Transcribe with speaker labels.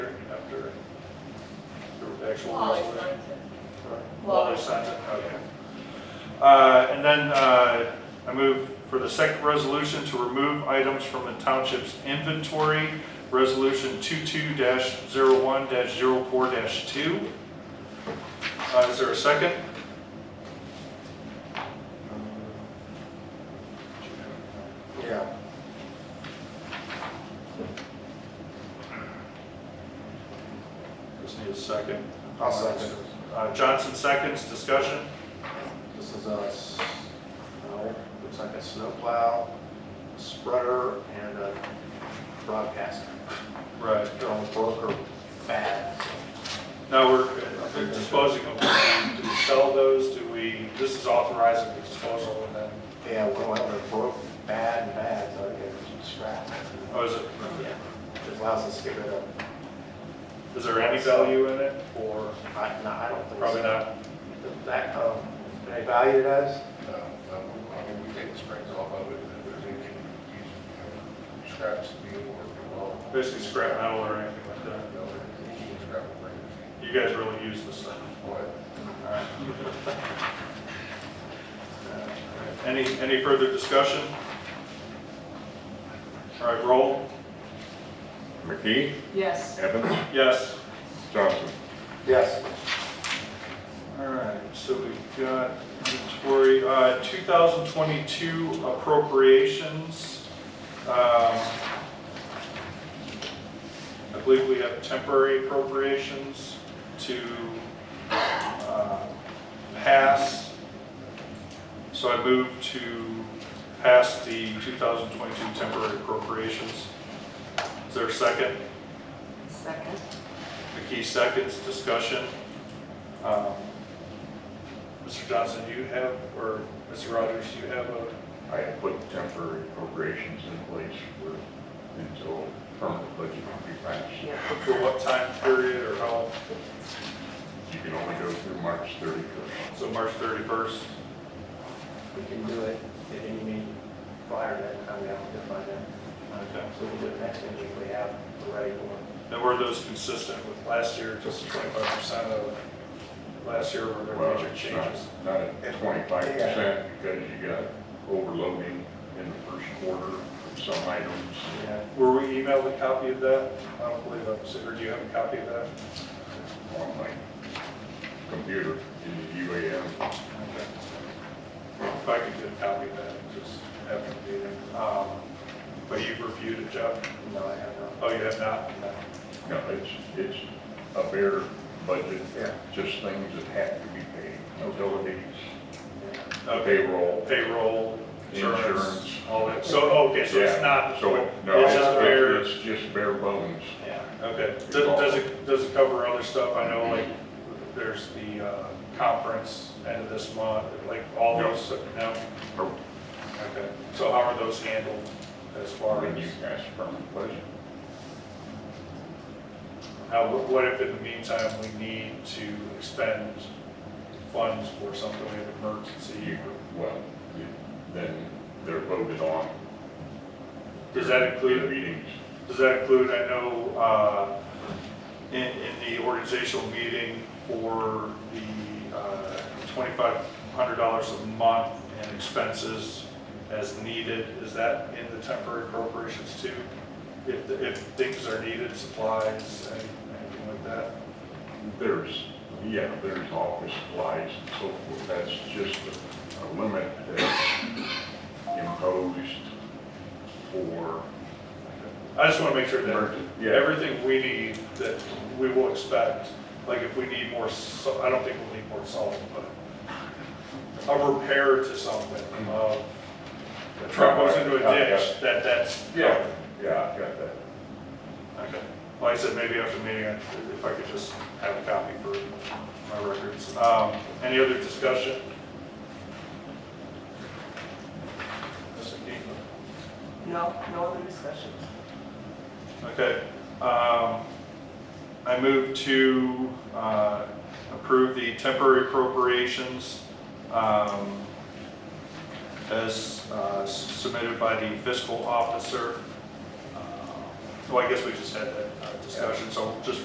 Speaker 1: the actual
Speaker 2: Wally
Speaker 1: resume?
Speaker 2: signs it.
Speaker 1: Wally signs it, okay. Uh, And then uh, I move for the second resolution to remove items from the township's inventory, Resolution 22-01-04-2. Uh, Is there a second?
Speaker 3: Yeah.
Speaker 1: Just need a second.
Speaker 3: I'll second.
Speaker 1: Uh, Johnson seconds, discussion.
Speaker 3: This is a, s- no, looks like a snowplow, spreader, and a broadcaster.
Speaker 1: Right.
Speaker 3: They're all broke or bad.
Speaker 1: Now, we're uh, disposing of, them. do we sell those? Do we, this is authorizing the disposal and then,
Speaker 3: Yeah, well, they're broke, bad, and bad, so I get scrapped.
Speaker 1: oh, is it,
Speaker 3: Yeah, just allows us to get rid of,
Speaker 1: is there any value in it or
Speaker 3: I, no, I don't think.
Speaker 1: probably
Speaker 3: so.
Speaker 1: not?
Speaker 3: That, um, they valued us,
Speaker 4: No, no, I mean, we take the springs off of it, and if there's anything we use, you know, scraps to be worked well.
Speaker 1: Basically scrap metal or anything like
Speaker 4: You
Speaker 1: that.
Speaker 4: know, you can scrap and bring it.
Speaker 1: You guys really use this stuff.
Speaker 4: What?
Speaker 1: All right. Uh, Any, any further discussion? All right, roll.
Speaker 5: McKee,
Speaker 2: Yes.
Speaker 5: Evans,
Speaker 1: Yes.
Speaker 5: Johnson.
Speaker 3: yes,
Speaker 1: All right, so we've got inventory, uh, 2022 appropriations. Um, I believe we have temporary appropriations to uh, pass. So I move to pass the 2022 temporary appropriations. Is there a second?
Speaker 2: Second.
Speaker 1: McKee seconds, discussion. Um, Mr. Johnson, do you have, or Mr. Rogers, do you have a,
Speaker 5: I have put temporary appropriations in place for, until permanent budget can be passed.
Speaker 1: for what time period or how,
Speaker 5: You can only go through March 31st.
Speaker 1: so March 31st?
Speaker 3: we can do it at any meeting prior to that, time we have to find out.
Speaker 1: Okay.
Speaker 3: So we do it next meeting, if we have the right one.
Speaker 1: And were those consistent with last year, just 25% of last year were there
Speaker 5: Well,
Speaker 1: major
Speaker 5: it's not-
Speaker 1: changes?
Speaker 5: Not at 25% because you got overloading in the first quarter of some items.
Speaker 3: Yeah,
Speaker 1: Were we emailed a copy of that? I don't believe I'm, so- or do you have a copy of that?
Speaker 5: on my computer in the UAM.
Speaker 1: Okay. If I could get a copy of that, just have it be there. Um, But you've reviewed it, Jeff?
Speaker 3: no, I have not.
Speaker 1: Oh, you have not?
Speaker 5: No, it's, it's a bare budget,
Speaker 3: Yeah.
Speaker 5: just things that have to be paid, utilities,
Speaker 1: Okay,
Speaker 5: payroll.
Speaker 1: payroll, insurance,
Speaker 5: Insurance.
Speaker 1: all that, so, oh, okay, so it's
Speaker 5: Yeah,
Speaker 1: not,
Speaker 5: So, no,
Speaker 1: it's just bare,
Speaker 5: it's, it's just bare bones.
Speaker 1: yeah, okay. Does, does it, does it cover other stuff? I know, like, there's the, uh, conference end of this month, like, all
Speaker 5: No.
Speaker 1: those, no?
Speaker 5: Or
Speaker 1: Okay, so how are those handled as far
Speaker 5: When you
Speaker 1: as,
Speaker 5: ask for a budget,
Speaker 1: how, what if in the meantime we need to expend funds for something, we have an emergency?
Speaker 5: you, well, you- then they're voted on.
Speaker 1: Does that include
Speaker 5: Their Meetings.
Speaker 1: Does that include, I know, uh, in, in the organizational meeting for the uh, $2,500 a month and expenses as needed, is that in the temporary appropriations too? If, if things are needed, supplies, and anything like that?
Speaker 5: There's, yeah, there's office supplies and so forth, that's just a- a limit that's imposed for,
Speaker 1: I just want to make sure
Speaker 5: Emergency,
Speaker 1: that
Speaker 5: yeah.
Speaker 1: everything we need, that we will expect, like if we need more, sa- I don't think we'll need more salt, but a repair to something, uh, a truck goes into a ditch, that, that's,
Speaker 5: Yeah, yeah, I got that.
Speaker 1: Okay. Like I said, maybe after the meeting, I- if I could just have a copy for my records. Um, Any other discussion? Mr. Keeper?
Speaker 2: No, no other discussions.
Speaker 1: Okay. um, I move to uh, approve the temporary appropriations um, as uh, submitted by the fiscal officer. Uh, Well, I guess we just had that uh, discussion, so just